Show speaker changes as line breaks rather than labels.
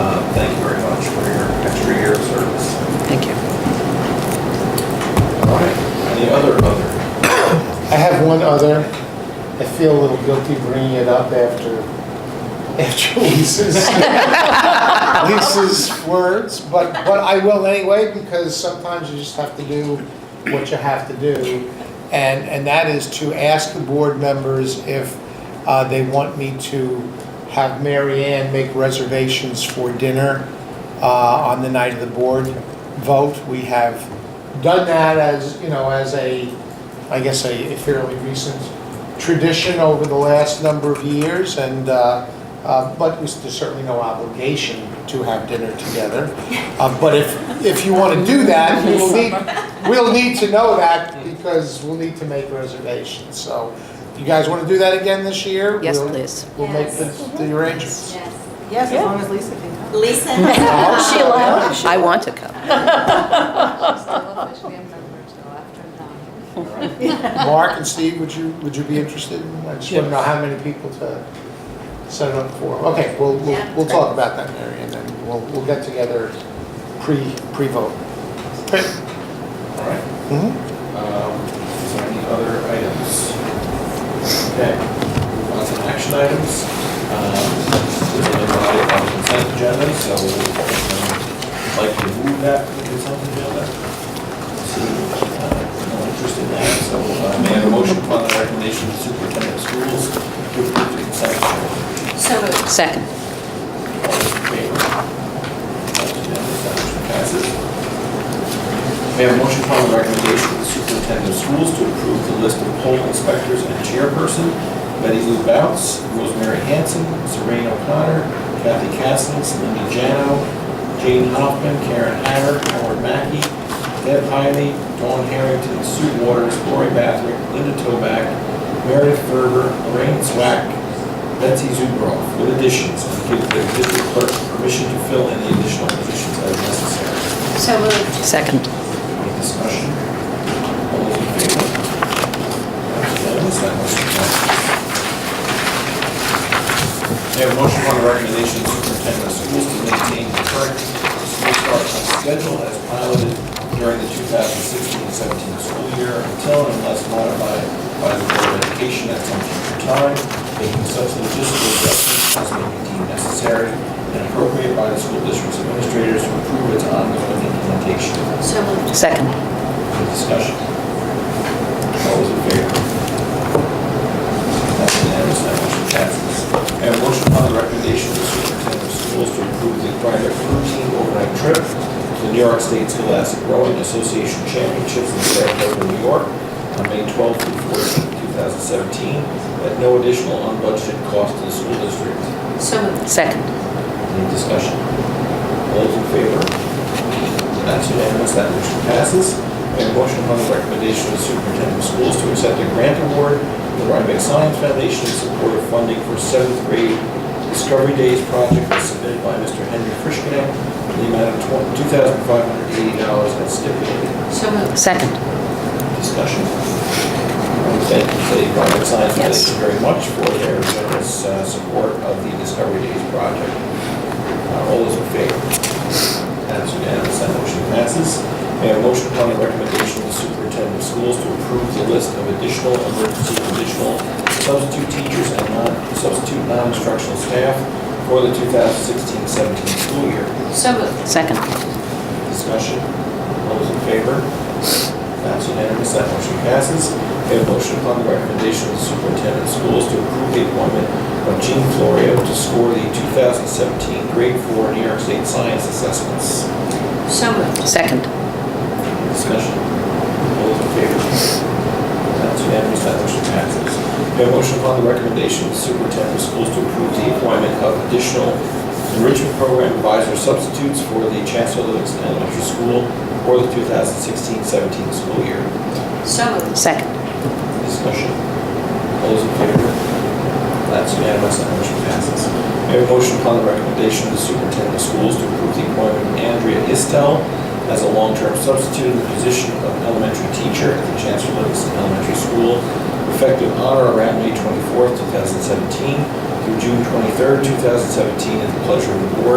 Uh, Thank you very much for your extra year of service.
Thank you.
All right. Any other, other?
I have one other. I feel a little guilty bringing it up after, after Lisa's, Lisa's words, but, but I will anyway, because sometimes you just have to do what you have to do. And, and that is to ask the board members if uh, they want me to have Mary Ann make reservations for dinner uh, on the night of the board vote. We have done that as, you know, as a, I guess, a a fairly recent tradition over the last number of years, and, uh, uh, but there's certainly no obligation to have dinner together. Uh, But if, if you want to do that, we'll need, we'll need to know that, because we'll need to make reservations. So you guys want to do that again this year?
Yes,
We'll-
please.
We'll make the the arrangements.
Yes.
Yes, as long as Lisa can come.
Lisa?
She allowed
I want to come.
She's still a Fish Band member till after nine.
Mark and Steve, would you, would you be interested? I just want to know how many people to set it up for. Okay, we'll, we'll,
Yeah.
we'll talk about that, Mary, and then we'll, we'll get together pre, pre-vote. Okay.
All right.
Mhm.
Um, Is there any other items? Okay. Move On to action items. Um, There's another item on the consent agenda, so um, I'd like to move that to the consent agenda. See, uh, no interest in that, so uh, may I have a motion upon the recommendation of the superintendent of schools to approve the consent agenda?
So moved.
Second.
All those in favor? That's unanimous, that motion passes. May I have a motion upon the recommendation of the superintendent of schools to approve the list of poll inspectors and chairperson, Betty Lou Bounce, Rosemary Hanson, Serene O'Connor, Kathy Castles, Linda Jano, Jane Hoffman, Karen Hatter, Howard Mackey, Deb Hiley, Dawn Harrington, Sue Waters, Lori Bathrick, Linda Toback, Meredith Ferber, Lorraine Swack, Betsy Zuberoff, with additions, and give the district clerk permission to fill any additional positions as necessary.
So moved.
Second.
Any discussion? All those in favor? That's unanimous. That motion passes. May I have a motion on the recommendation of superintendent of schools to maintain the current school start on schedule as piloted during the 2016-17 school year until and unless modified by the Board of Education at some future time, making such logistical adjustments as may be deemed necessary and appropriate by the school district's administrators to improve its ongoing implementation.
So moved.
Second.
Any discussion? All those in favor? That's unanimous, that motion passes. May I have a motion upon the recommendation of the superintendent of schools to approve the private routine overnight trip to the New York State Scholastic Rowing Association Championships in Saratoga, New York, on May 12th through 14th, 2017, at no additional unbudgeted cost to the school district.
So moved.
Second.
Any discussion? All those in favor? That's unanimous, that motion passes. May I have a motion upon the recommendation of the superintendent of schools to accept a grant award to the Rhinebeck Science Foundation in support of funding for seventh grade Discovery Days project submitted by Mr. Henry Frischknecht in the amount of $2,580 as stipulated.
So moved.
Second.
Discussion. Thank you to the Rhinebeck Science
Yes.
Foundation very much for their generous uh, support of the Discovery Days project. Uh, All those in favor? That's unanimous, that motion passes. May I have a motion upon the recommendation of the superintendent of schools to approve the list of additional emergency additional substitute teachers and non-substitute non-instructional staff for the 2016-17 school year?
So moved.
Second.
Discussion? All those in favor? That's unanimous, that motion passes. May I have a motion upon the recommendation of the superintendent of schools to approve the appointment of Jean Florio to score the 2017 grade four New York State Science Assessments.
So moved.
Second.
Discussion? All those in favor? That's unanimous, that motion passes. May I have a motion upon the recommendation of the superintendent of schools to approve the appointment of additional enrichment program advisor substitutes for the Chancellor Livingston Elementary School for the 2016-17 school year.
So moved.
Second.
Discussion. All those in favor? That's unanimous, that motion passes. May I have a motion upon the recommendation of the superintendent of schools to approve the appointment of Andrea Istel as a long-term substitute in the position of elementary teacher at the Chancellor Livingston Elementary School, effective on or around May 24th, 2017 through June 23rd, 2017, at the pleasure of the board